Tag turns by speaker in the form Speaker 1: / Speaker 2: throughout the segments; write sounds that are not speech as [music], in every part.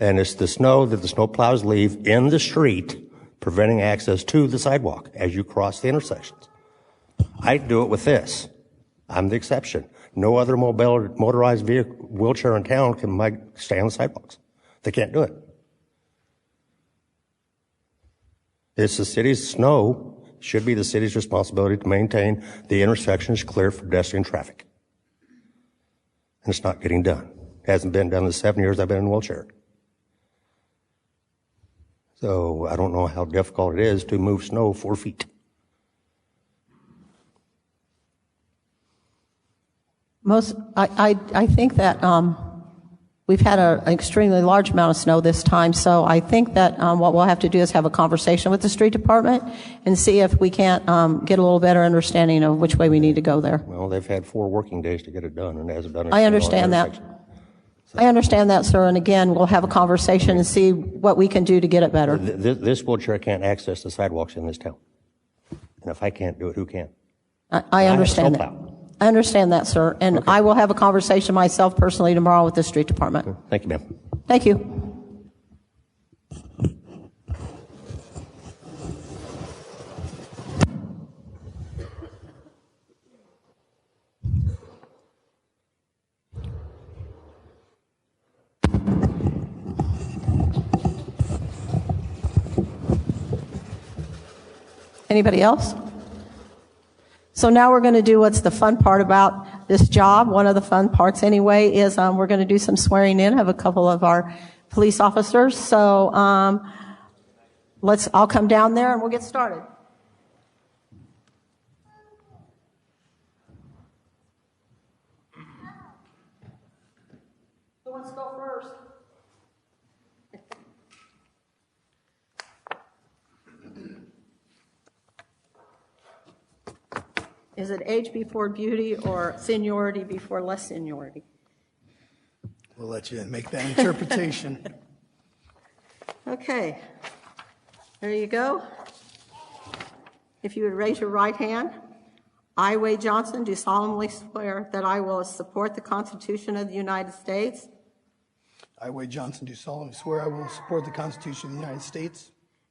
Speaker 1: And it's the snow that the snowplows leave in the street, preventing access to the sidewalk as you cross the intersections. I do it with this. I'm the exception. No other mobile, motorized vehicle, wheelchair in town can mi- stay on the sidewalks. They can't do it. It's the city's snow, should be the city's responsibility to maintain the intersections clear for pedestrian traffic. And it's not getting done. It hasn't been done in the seven years I've been in a wheelchair. So I don't know how difficult it is to move snow four feet.
Speaker 2: Most, I, I, I think that um, we've had a, an extremely large amount of snow this time, so I think that um, what we'll have to do is have a conversation with the street department and see if we can't um, get a little better understanding of which way we need to go there.
Speaker 1: Well, they've had four working days to get it done and it hasn't done it.
Speaker 2: I understand that. I understand that, sir, and again, we'll have a conversation and see what we can do to get it better.
Speaker 1: This, this wheelchair can't access the sidewalks in this town. And if I can't do it, who can?
Speaker 2: I- I
Speaker 1: a
Speaker 2: understand that.
Speaker 1: snowplow.
Speaker 2: I understand that, sir, and I will have a conversation myself personally tomorrow with the street department.
Speaker 1: Thank you, ma'am.
Speaker 2: Thank you. Anybody else? So now we're going to do what's the fun part about this job. One of the fun parts, anyway, is um, we're going to do some swearing in of a couple of our police officers. So um, let's. I'll come down there and we'll get started. Who wants to go first? Is it age before beauty or seniority before less seniority?
Speaker 3: We'll let you make that interpretation. [laughs]
Speaker 2: Okay. There you go. If you would raise your right hand. I, Wade Johnson, do solemnly swear that I will support the Constitution of the United States
Speaker 3: I, Wade Johnson, do solemnly swear I will support the Constitution of the United States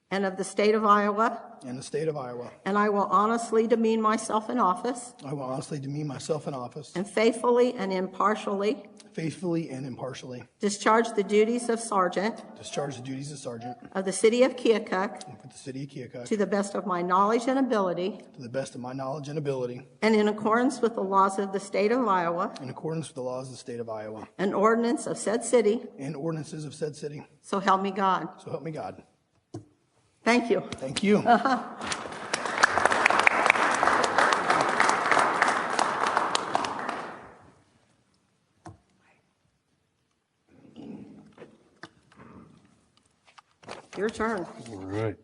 Speaker 2: and of the state of Iowa,
Speaker 3: and the state of Iowa.
Speaker 2: and I will honestly demean myself in office
Speaker 3: I will honestly demean myself in office,
Speaker 2: and faithfully and impartially
Speaker 3: faithfully and impartially,
Speaker 2: discharge the duties of sergeant
Speaker 3: discharge the duties of sergeant
Speaker 2: of the city of Keokuk
Speaker 3: for the city of Keokuk
Speaker 2: to the best of my knowledge and ability
Speaker 3: to the best of my knowledge and ability,
Speaker 2: and in accordance with the laws of the state of Iowa
Speaker 3: in accordance with the laws of the state of Iowa
Speaker 2: and ordinance of said city,
Speaker 3: and ordinances of said city.
Speaker 2: so help me God.
Speaker 3: So help me God.
Speaker 2: Thank you.
Speaker 3: Thank you.
Speaker 2: Your turn.
Speaker 4: All right.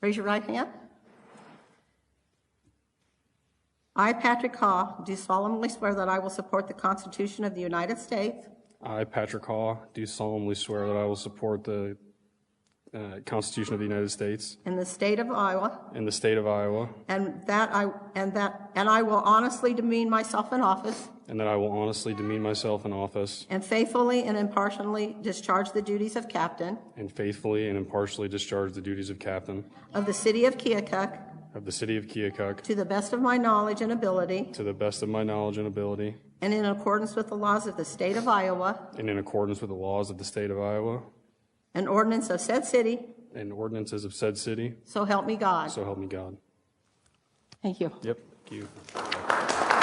Speaker 2: Raise your right hand. I, Patrick Haw, do solemnly swear that I will support the Constitution of the United States
Speaker 4: I, Patrick Haw, do solemnly swear that I will support the uh, Constitution of the United States
Speaker 2: and the state of Iowa,
Speaker 4: and the state of Iowa,
Speaker 2: and that I, and that, and I will honestly demean myself in office
Speaker 4: and that I will honestly demean myself in office
Speaker 2: and faithfully and impartially discharge the duties of captain
Speaker 4: and faithfully and impartially discharge the duties of captain
Speaker 2: of the city of Keokuk
Speaker 4: of the city of Keokuk
Speaker 2: to the best of my knowledge and ability
Speaker 4: to the best of my knowledge and ability
Speaker 2: and in accordance with the laws of the state of Iowa
Speaker 4: and in accordance with the laws of the state of Iowa
Speaker 2: and ordinance of said city,
Speaker 4: and ordinances of said city.
Speaker 2: so help me God.
Speaker 4: So help me God.
Speaker 2: Thank you.
Speaker 4: Yep. Thank you.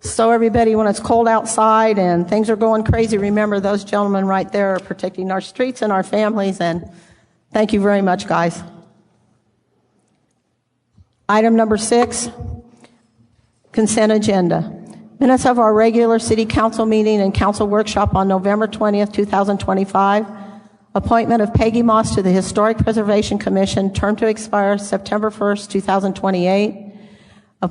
Speaker 2: So everybody, when it's cold outside and things are going crazy, remember those gentlemen right there are protecting our streets and our families, and thank you very much, guys. Item number six, consent agenda. Minutes of our regular city council meeting and council workshop on November 20th, 2025. Appointment of Peggy Moss to the Historic Preservation Commission, term to expire September 1st, 2028.